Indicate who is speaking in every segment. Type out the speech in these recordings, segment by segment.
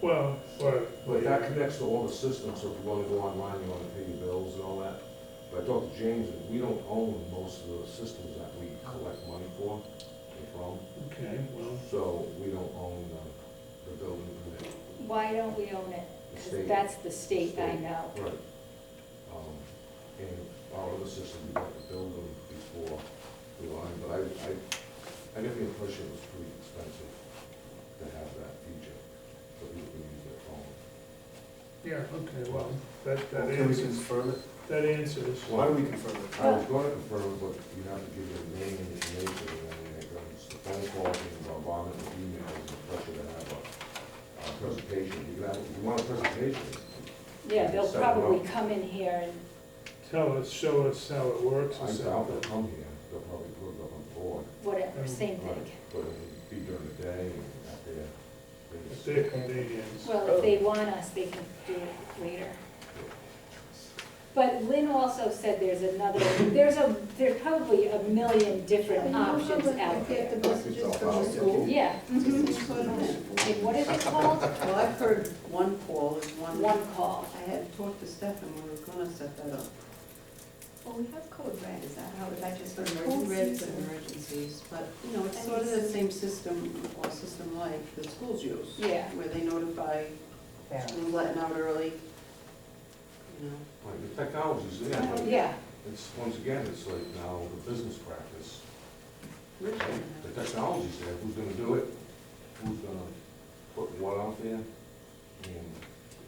Speaker 1: Well, right.
Speaker 2: But that connects to all the systems, so if you wanna go online, you wanna pay your bills and all that. But I talked to James, and we don't own most of the systems that we collect money for and from,
Speaker 1: Okay, well,
Speaker 2: so we don't own the, the building permit,
Speaker 3: Why don't we own it?
Speaker 2: the
Speaker 3: 'Cause
Speaker 2: state.
Speaker 3: that's the state, I
Speaker 2: State.
Speaker 3: know.
Speaker 2: Right. Um, And our other system, we got to build them before we lined, but I, I, I get the impression it was pretty expensive to have that feature, so people can use their phone.
Speaker 1: yeah, okay, well, that, that
Speaker 4: Can we
Speaker 1: answers,
Speaker 4: confirm it?
Speaker 1: that answers.
Speaker 4: Why do we confirm it?
Speaker 2: I was gonna confirm, but you have to give your name and information, and then it goes, the phone calls, and bombardment, and emails, and pressure to have a, a presentation, you can have, if you want a presentation.
Speaker 3: Yeah, they'll
Speaker 2: Set it up.
Speaker 3: probably come in here and,
Speaker 1: Tell us, show us how it works
Speaker 2: I
Speaker 1: or
Speaker 2: doubt they'll
Speaker 1: something.
Speaker 2: come here, they'll probably put it up on the board.
Speaker 3: whatever, same
Speaker 2: Right,
Speaker 3: thing.
Speaker 2: But it'd be during the day and out there. they
Speaker 1: At
Speaker 2: just-
Speaker 1: their convenience.
Speaker 3: Well, if they want us, they can do it later. But Lynn also said there's another, there's a, there's probably a million different options out
Speaker 5: Get
Speaker 3: there.
Speaker 5: the messages from the school.
Speaker 3: Yeah. mhm.
Speaker 5: Just put on it.
Speaker 3: And what is it called?
Speaker 5: Well, I've heard one call is one.
Speaker 3: One call.
Speaker 5: I had talked to Stefan, we were gonna set that up.
Speaker 6: Well, we have code red, is that how, is that just
Speaker 5: For
Speaker 6: for
Speaker 5: emergencies
Speaker 6: emergencies?
Speaker 5: and emergencies, but, you know, it's sort of the same system or system like the schools use.
Speaker 3: Yeah.
Speaker 5: Where they notify, and letting out early, you know.
Speaker 2: Like, the technology's there, but
Speaker 3: Yeah,
Speaker 2: it's, once again, it's like now the business practice,
Speaker 5: Richmond
Speaker 2: the technology's there, who's gonna do it? Who's gonna put what out there? And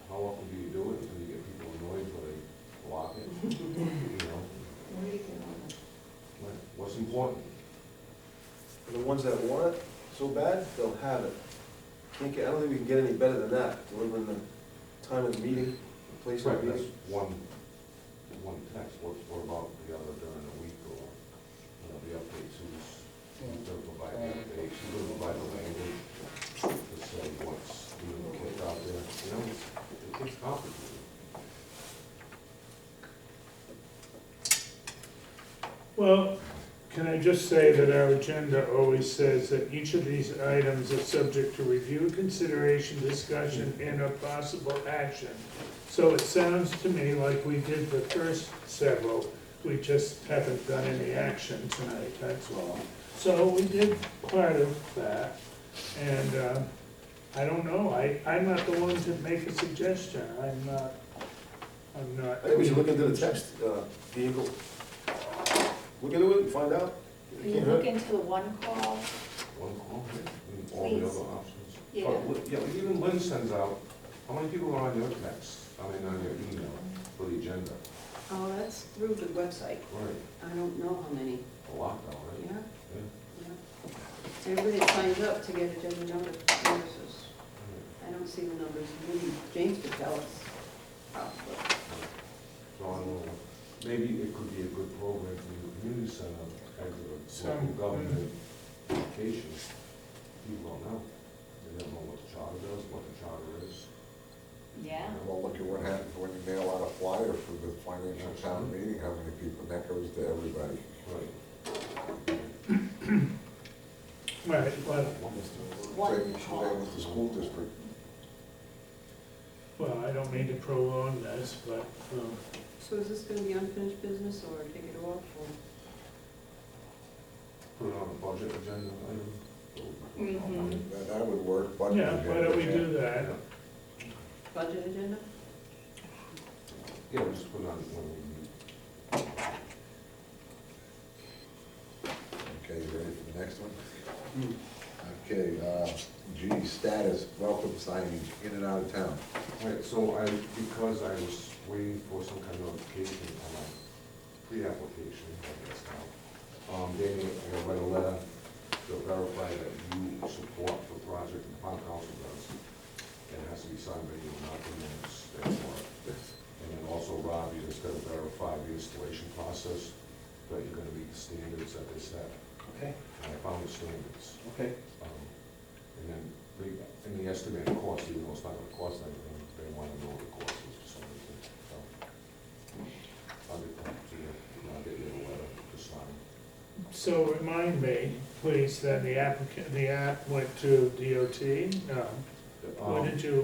Speaker 2: how often do you do it until you get people annoyed where they block it, you know? Like, What's important?
Speaker 4: And the ones that want it so bad, they'll have it. Can't get, I don't think we can get any better than that, delivering the time of the meeting, the place of
Speaker 2: Right,
Speaker 4: the
Speaker 2: that's
Speaker 4: meeting.
Speaker 2: one, one text, what, what about the other during the week or, you know, the updates, who's, who's gonna provide the updates, who's gonna provide the language? To say what's being kicked out there, you know, it's, it gets complicated.
Speaker 1: Well, can I just say that our agenda always says that each of these items are subject to review, consideration, discussion, and a possible action. So it sounds to me like we did the first several, we just haven't done any action tonight, that's all. So we did part of that, and, uh, I don't know, I, I'm not the one to make a suggestion, I'm not, I'm not.
Speaker 4: I think we should look into the text, uh, vehicle. Look into it and find out. It
Speaker 3: you
Speaker 4: can't hurt.
Speaker 3: look into the one call,
Speaker 2: One call, and all the
Speaker 3: Please.
Speaker 2: other options.
Speaker 3: Yeah.
Speaker 2: But li- Yeah, but even Lynn sends out, how many people are on your text, I mean, on your email for the agenda?
Speaker 5: Oh, that's through the website.
Speaker 2: Right,
Speaker 5: I don't know how many,
Speaker 2: a lot though, right?
Speaker 5: yeah,
Speaker 2: Yeah.
Speaker 5: yeah. Everybody signs up to get agenda number notices.
Speaker 2: Right.
Speaker 5: I don't see the numbers, maybe James could tell us. Probably.
Speaker 2: So I don't know, maybe it could be a good program for the community center, as a local
Speaker 1: Some-
Speaker 2: government application. People don't know, they don't know what the charter does, what the charter is.
Speaker 3: yeah.
Speaker 7: Well, look at what happens when you mail out a flyer for the financial town meeting, how many people, and that goes to everybody.
Speaker 2: Right.
Speaker 1: Right, well,
Speaker 3: One
Speaker 7: Same
Speaker 3: call.
Speaker 7: same with the school district.
Speaker 1: Well, I don't mean to prolong this, but, um,
Speaker 5: So is this gonna be unfinished business or take it off or?
Speaker 2: Put it on a budget agenda item.
Speaker 3: Mhm.
Speaker 7: That, that would work, but.
Speaker 1: yeah, why don't we do that?
Speaker 5: Budget agenda?
Speaker 2: Yeah, we'll just put it on when we meet.
Speaker 7: Okay, you ready for the next one? Okay, uh, G, status, welcome signage in and out of town.
Speaker 2: Right, so I, because I was waiting for some kind of notification on my pre-application, I guess now, um, they, I gotta write a letter to verify that you support the project the town council does. And it has to be signed by you, not the minutes, that's what. And then also, Rob, you just gotta verify the installation process, that you're gonna meet the standards that they set.
Speaker 4: Okay,
Speaker 2: And I found the standards.
Speaker 4: okay.
Speaker 2: Um, And then, they- in the estimated cost, even though it's not gonna cost anything, they wanna know what the cost is for some reason, so. I'll get back to you, and I'll get you a letter to sign.
Speaker 1: So remind me, please, that the applicant, the app went to DOT? No.
Speaker 2: The, um,
Speaker 1: Where did you